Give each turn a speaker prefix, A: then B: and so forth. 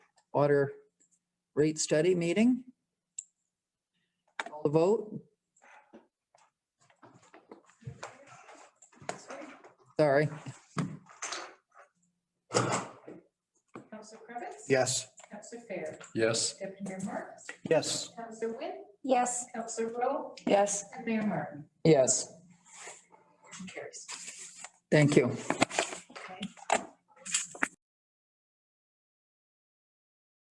A: water rate study meeting. Call the vote. Sorry.
B: Counselor Cravitz?
C: Yes.
B: Counselor Fair?
D: Yes.
B: Deputy Mayor Marks?
C: Yes.
B: Counselor Wynn?
E: Yes.
B: Counselor Rowe?
E: Yes.
B: And Mayor Martin?
A: Yes,
B: Motion carries.
A: thank you.